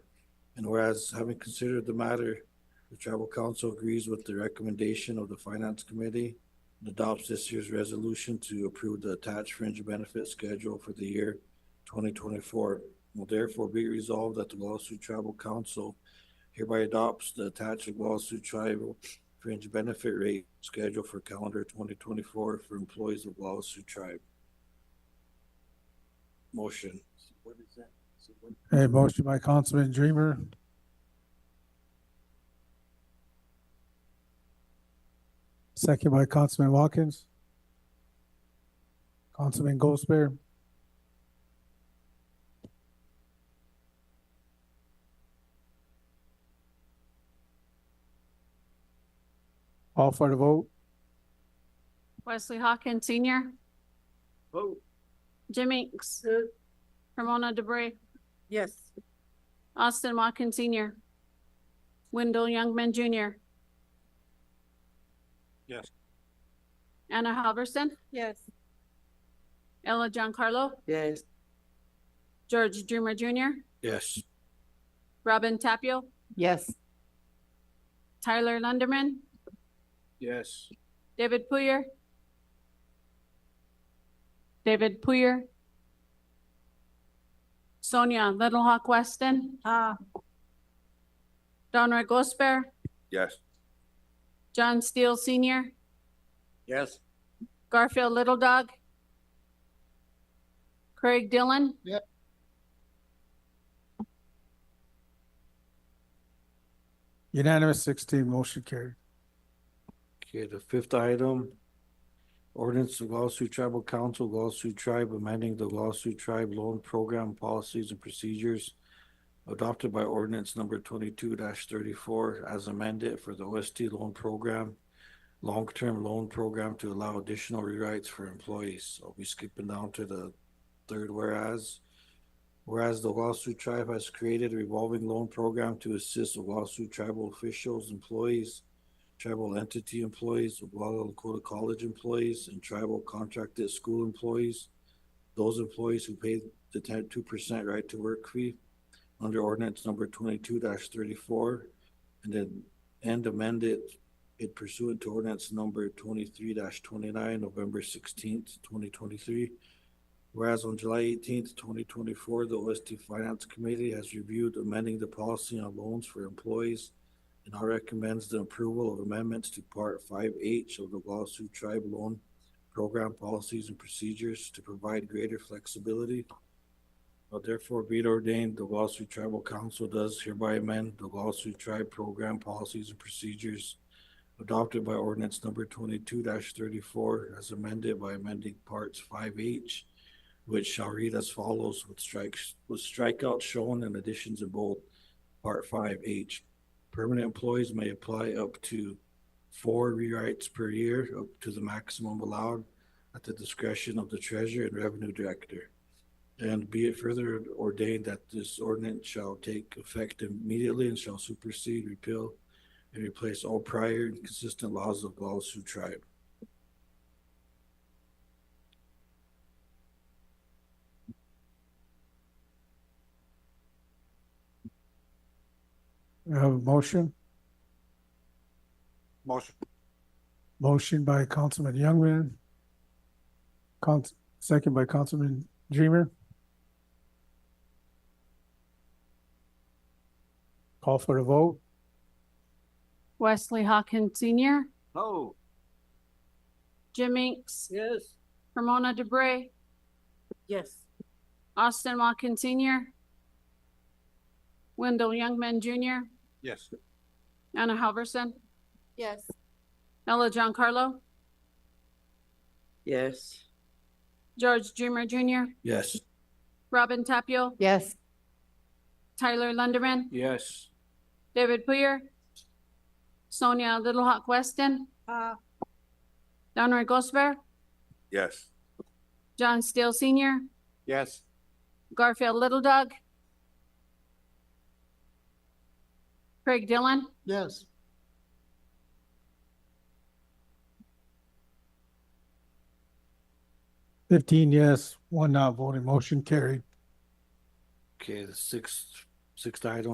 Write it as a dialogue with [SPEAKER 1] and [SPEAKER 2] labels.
[SPEAKER 1] And whereas having considered the matter, the tribal council agrees with the recommendation of the finance committee and adopts this year's resolution to approve the attached fringe benefit schedule for the year twenty twenty-four. Will therefore be resolved that the Wallace Tribal Council hereby adopts the attached Wallace Tribal fringe benefit rate schedule for calendar twenty twenty-four for employees of Wallace Tribe. Motion.
[SPEAKER 2] Okay, motion by Councilman Dreamer. Second by Councilman Watkins. Councilman Goldsberry. All for the vote.
[SPEAKER 3] Wesley Hawkins Senior,
[SPEAKER 4] Vote.
[SPEAKER 3] Jim Inks, Ramona DeBrey,
[SPEAKER 5] Yes.
[SPEAKER 3] Austin Watkins Senior, Wendell Youngman Junior.
[SPEAKER 1] Yes.
[SPEAKER 3] Anna Halverson,
[SPEAKER 5] Yes.
[SPEAKER 3] Ella Giancarlo,
[SPEAKER 5] Yes.
[SPEAKER 3] George Dreamer Junior,
[SPEAKER 1] Yes.
[SPEAKER 3] Robin Tapio,
[SPEAKER 5] Yes.
[SPEAKER 3] Tyler Lunderman,
[SPEAKER 4] Yes.
[SPEAKER 3] David Puyer. David Puyer. Sonia Little Hawk Weston,
[SPEAKER 5] Ah.
[SPEAKER 3] Donroy Gosper,
[SPEAKER 4] Yes.
[SPEAKER 3] John Steele Senior,
[SPEAKER 4] Yes.
[SPEAKER 3] Garfield Little Dog. Craig Dillon.
[SPEAKER 4] Yep.
[SPEAKER 2] Unanimous sixteen, motion carried.
[SPEAKER 1] Okay, the fifth item. Ordinance of Wallace Tribal Council, Wallace Tribe amending the Wallace Tribe Loan Program Policies and Procedures adopted by ordinance number twenty-two thirty-four as amended for the OST loan program, long-term loan program to allow additional rewrites for employees. I'll be skipping down to the third whereas. Whereas the Wallace Tribe has created a revolving loan program to assist Wallace tribal officials, employees, tribal entity employees, Walla Lakota College employees, and tribal contracted school employees. Those employees who paid the ten, two percent right to work fee under ordinance number twenty-two thirty-four. And then, and amended it pursuant to ordinance number twenty-three twenty-nine, November sixteenth, twenty twenty-three. Whereas on July eighteenth, twenty twenty-four, the OST Finance Committee has reviewed amending the policy on loans for employees and I recommends the approval of amendments to Part Five H of the Wallace Tribe Loan Program Policies and Procedures to provide greater flexibility. Now therefore be it ordained, the Wallace Tribal Council does hereby amend the Wallace Tribe Program Policies and Procedures adopted by ordinance number twenty-two thirty-four as amended by amending parts five H, which shall read as follows with strikes, with strikeouts shown and additions in bold. Part five H, Permanent employees may apply up to four rewrites per year, up to the maximum allowed at the discretion of the treasurer and revenue director. And be it further ordained that this ordinance shall take effect immediately and shall supersede, repeal, and replace all prior and consistent laws of Wallace Sioux Tribe.
[SPEAKER 2] We have a motion,
[SPEAKER 4] Motion.
[SPEAKER 2] motion by Councilman Youngman. Council, second by Councilman Dreamer. Call for the vote.
[SPEAKER 3] Wesley Hawkins Senior,
[SPEAKER 4] Oh.
[SPEAKER 3] Jim Inks,
[SPEAKER 4] Yes.
[SPEAKER 3] Ramona DeBrey,
[SPEAKER 5] Yes.
[SPEAKER 3] Austin Watkins Senior. Wendell Youngman Junior,
[SPEAKER 4] Yes.
[SPEAKER 3] Anna Halverson,
[SPEAKER 5] Yes.
[SPEAKER 3] Ella Giancarlo,
[SPEAKER 5] Yes.
[SPEAKER 3] George Dreamer Junior,
[SPEAKER 1] Yes,
[SPEAKER 3] Robin Tapio,
[SPEAKER 5] Yes.
[SPEAKER 3] Tyler Lunderman,
[SPEAKER 4] Yes.
[SPEAKER 3] David Poyer, Sonia Little Hawk Weston,
[SPEAKER 5] Ah.
[SPEAKER 3] Donroy Gosper,
[SPEAKER 4] Yes.
[SPEAKER 3] John Steele Senior,
[SPEAKER 4] Yes.
[SPEAKER 3] Garfield Little Dog, Craig Dillon,
[SPEAKER 4] Yes.
[SPEAKER 2] Fifteen yes, one not voting, motion carried.
[SPEAKER 1] okay, the sixth, sixth item